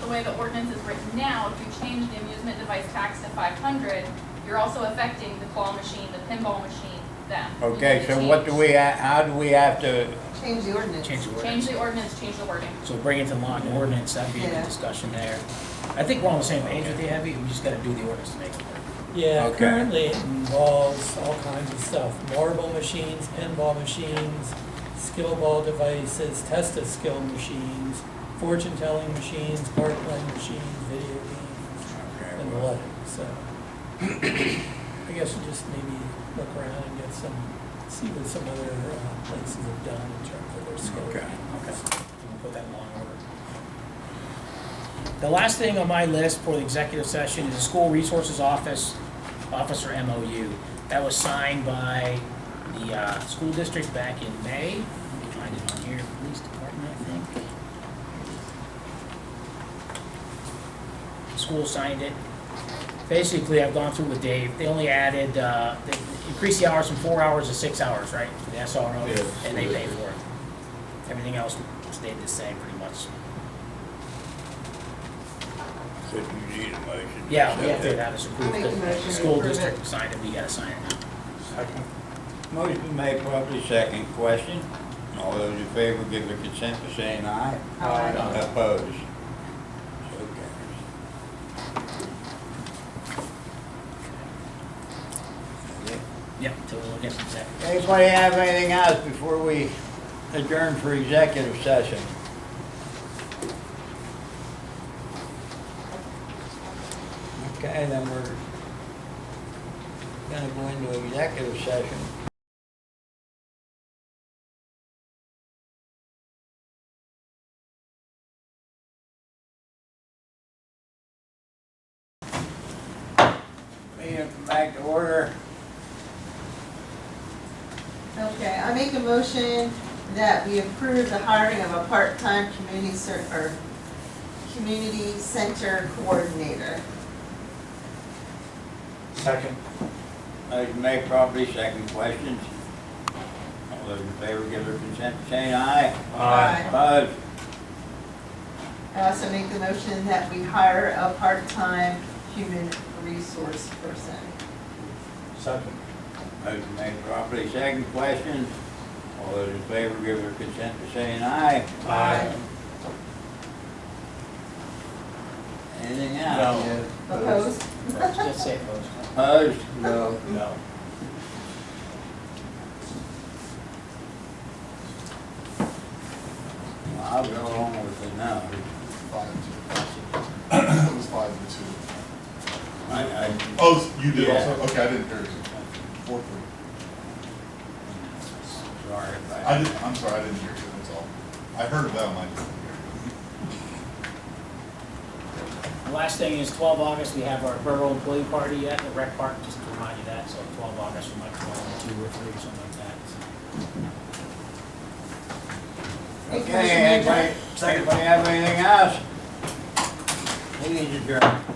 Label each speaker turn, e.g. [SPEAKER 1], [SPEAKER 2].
[SPEAKER 1] the way the ordinance is written now, if you change the amusement device tax to five hundred, you're also affecting the claw machine, the pinball machine, them. You
[SPEAKER 2] Okay,
[SPEAKER 1] need to
[SPEAKER 2] so what do
[SPEAKER 1] change-
[SPEAKER 2] we, ha- how do we have to,
[SPEAKER 3] Change the ordinance.
[SPEAKER 4] change the
[SPEAKER 1] Change
[SPEAKER 4] ordinance.
[SPEAKER 1] the ordinance, change the wording.
[SPEAKER 4] So bring it to law and ordinance, that'd be a
[SPEAKER 3] Yeah.
[SPEAKER 4] good discussion there. I think we're on the same page with the Abby, we just gotta do the ordinance to make it work.
[SPEAKER 5] Yeah,
[SPEAKER 2] Okay.
[SPEAKER 5] currently it involves all kinds of stuff, marble machines, pinball machines, skill ball devices, test of skill machines, fortune telling machines, card playing machines, video games, and the like, so. I guess you just maybe look around and get some, see what some other uh, places have done in terms of their skill.
[SPEAKER 2] Okay.
[SPEAKER 5] games.
[SPEAKER 4] We'll put that in law and order. The last thing on my list for the executive session is the school resources office, officer MOU. That was signed by the uh, school district back in May. Let me find it on here, police department, I think. The School signed it. Basically, I've gone through with Dave. They only added, uh, they increased the hours from four hours to six hours, right? for The SRO,
[SPEAKER 6] Yes.
[SPEAKER 4] and they pay for it. Everything else stayed the same pretty much.
[SPEAKER 2] so you need a motion?
[SPEAKER 4] Yeah, we have to have this
[SPEAKER 3] I'll
[SPEAKER 4] approved,
[SPEAKER 3] make a motion
[SPEAKER 4] the
[SPEAKER 3] to
[SPEAKER 4] school
[SPEAKER 3] approve it.
[SPEAKER 4] district signed it, we gotta sign it now.
[SPEAKER 2] Second. Motion made, properly second. Question? All those in favor give their consent by saying aye.
[SPEAKER 3] Aye.
[SPEAKER 2] Opposed? So carries.
[SPEAKER 4] Yep, till we look at the executive.
[SPEAKER 2] Anybody have anything else before we adjourn for executive session? Okay, then we're gonna go into executive session. Meeting come back to order.
[SPEAKER 3] Okay, I make a motion that we approve the hiring of a part-time community cer, or community center coordinator.
[SPEAKER 6] Second.
[SPEAKER 2] Motion made properly, second questions. All those in favor give their consent, by saying aye.
[SPEAKER 3] Aye.
[SPEAKER 2] Opposed?
[SPEAKER 3] I also make the motion that we hire a part-time human resource person.
[SPEAKER 6] Second.
[SPEAKER 2] Motion made properly, second questions. All those in favor give their consent, by saying aye.
[SPEAKER 6] Aye.
[SPEAKER 2] Anything else?
[SPEAKER 6] No.
[SPEAKER 3] Opposed?
[SPEAKER 4] Just say opposed.
[SPEAKER 2] Opposed?
[SPEAKER 6] No. No.
[SPEAKER 2] Well, I'll go along with it now.
[SPEAKER 7] Five to two. It was five to two.
[SPEAKER 2] I, I,
[SPEAKER 7] Oh, you did
[SPEAKER 2] Yeah.
[SPEAKER 7] also? Okay, I didn't hear you. Four, three.
[SPEAKER 2] sorry if
[SPEAKER 7] I did, I'm sorry, I didn't hear you, that's all. I heard of them, I didn't hear
[SPEAKER 4] The last thing is twelve August, we have our borough employee party at the rec park, just to remind you that, so twelve August from like twelve to two or three or something like that.
[SPEAKER 2] Okay, anybody, anybody have anything else? Please adjourn.